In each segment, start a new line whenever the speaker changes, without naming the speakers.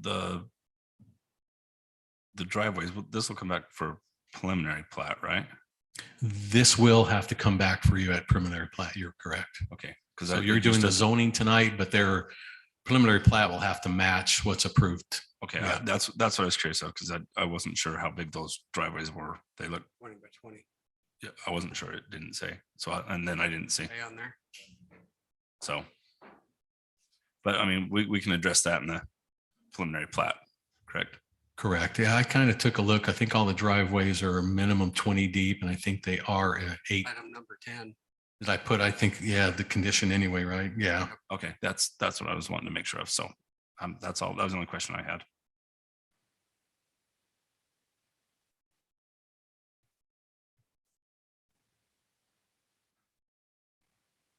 the the driveways, well, this will come back for preliminary plat, right?
This will have to come back for you at preliminary plat. You're correct.
Okay. Because
So you're doing the zoning tonight, but their preliminary plat will have to match what's approved.
Okay,
yeah.
I- that's, that's what I was curious of, because I, I wasn't sure how big those driveways were. They look,
twenty by twenty,
yeah, I wasn't sure. It didn't say. So, I- and then I didn't see,
stay on there.
so. But I mean, we, we can address that in the preliminary plat, correct?
Correct. Yeah, I kind of took a look. I think all the driveways are a minimum twenty deep and I think they are uh, eight.
Item number ten,
Did I put, I think, yeah, the condition anyway, right? Yeah.
Okay, that's, that's what I was wanting to make sure of. So, um, that's all. That was the only question I had.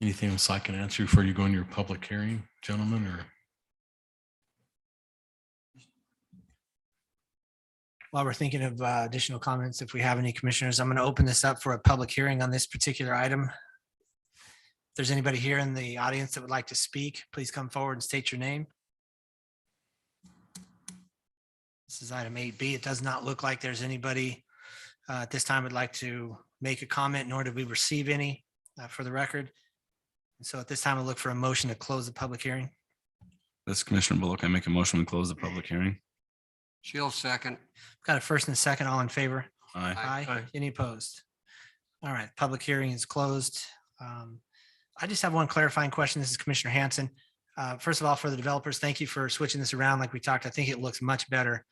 Anything else I can answer before you go into your public hearing, gentlemen, or?
While we're thinking of uh, additional comments, if we have any commissioners, I'm going to open this up for a public hearing on this particular item. If there's anybody here in the audience that would like to speak, please come forward and state your name. This is item eight B. It does not look like there's anybody uh, at this time would like to make a comment, nor did we receive any uh, for the record. And So at this time, I'll look for a motion to close the public hearing.
This is Commissioner Bullock, I make a motion to close the public hearing.
Shield second.
Got a first and a second, all in favor?
Aye.
Aye.
Aye. Any opposed? All right, public hearing is closed. Um, I just have one clarifying question. This is Commissioner Hanson. Uh, First of all, for the developers, thank you for switching this around like we talked. I think it looks much better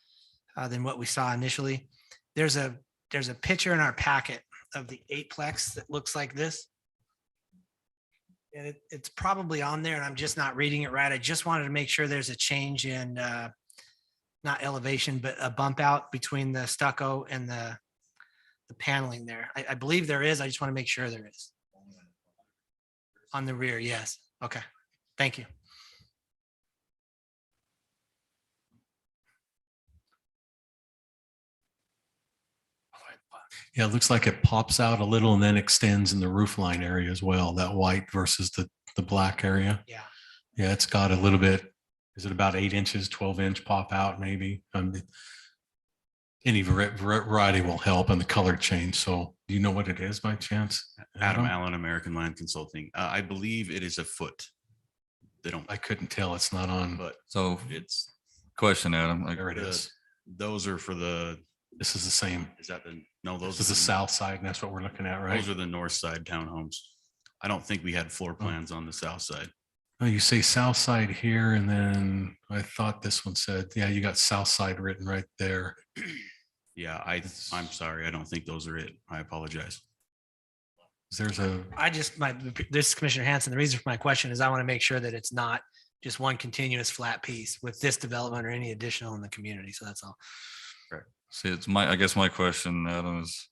uh, than what we saw initially. There's a, there's a picture in our packet of the eightplex that looks like this. And it, it's probably on there and I'm just not reading it right. I just wanted to make sure there's a change in uh, not elevation, but a bump out between the stucco and the the paneling there. I, I believe there is. I just want to make sure there is. On the rear, yes. Okay, thank you.
Yeah, it looks like it pops out a little and then extends in the roof line area as well, that white versus the, the black area.
Yeah.
Yeah, it's got a little bit, is it about eight inches, twelve inch pop out maybe? Um, it- Any vari- vari- variety will help and the color change. So do you know what it is by chance? Adam?
Adam Allen, American Land Consulting. Uh, I believe it is a foot. They don't,
I couldn't tell. It's not on.
but
So
it's,
question, Adam, like,
There it
the-
is.
those are for the,
This is the same.
is that the, no, those.
This is the
are
south side and that's what we're looking at,
the-
right?
Those are the north side townhomes. I don't think we had floor plans on the south side.
Oh, you say south side here and then I thought this one said, yeah, you got south side written right there.
Yeah, I, I'm sorry. I don't think those are it. I apologize.
There's a,
I just, my, this is Commissioner Hanson, the reason for my question is I want to make sure that it's not just one continuous flat piece with this development or any additional in the community. So that's all.
see, it's my, I guess my question, Adam, is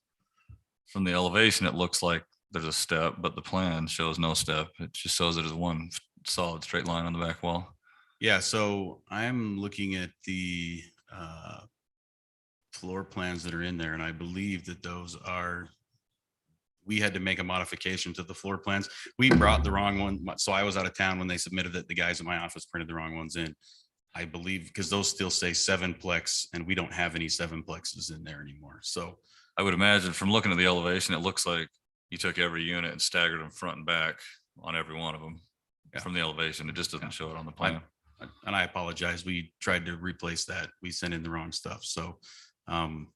from the elevation, it looks like there's a step, but the plan shows no step. It just shows it as one solid straight line on the back wall.
Yeah, so I'm looking at the uh floor plans that are in there, and I believe that those are we had to make a modification to the floor plans. We brought the wrong one, my- so I was out of town when they submitted it. The guys in my office printed the wrong ones in. I believe, because those still say seven plex, and we don't have any seven plexes in there anymore. So
I would imagine from looking at the elevation, it looks like you took every unit and staggered them front and back on every one of them
Yeah.
from the elevation. It just doesn't show it on the plan.
and I apologize, we tried to replace that. We sent in the wrong stuff, so um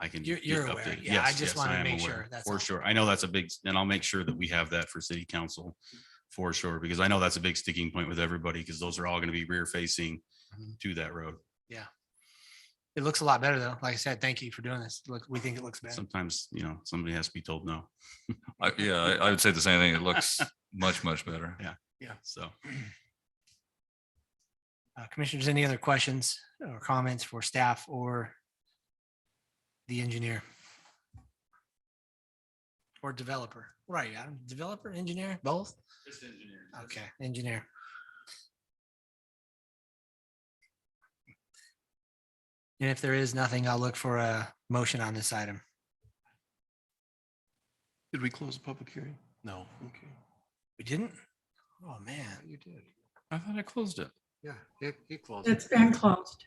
I can.
You're-
get
you're aware.
updated.
Yeah, I
Yes,
just
yes,
wanted to
am
make
aware,
sure, that's all.
For sure. I know that's a big, and I'll make sure that we have that for city council for sure, because I know that's a big sticking point with everybody, because those are all going to be rear facing
Mm-hmm.
to that road.
It looks a lot better though. Like I said, thank you for doing this. Look, we think it looks better.
Sometimes, you know, somebody has to be told no.
I, yeah, I, I would say the same thing. It looks much, much better.
So
Uh, Commissioners, any other questions or comments for staff or the engineer? Or developer? Right, Adam, developer, engineer, both? Okay, engineer. And if there is nothing, I'll look for a motion on this item.
Did we close the public hearing?
no.
Okay.
We didn't? Oh, man.
You did.
I thought I closed it.
Yeah, he, he closed.
It's
it.
been closed.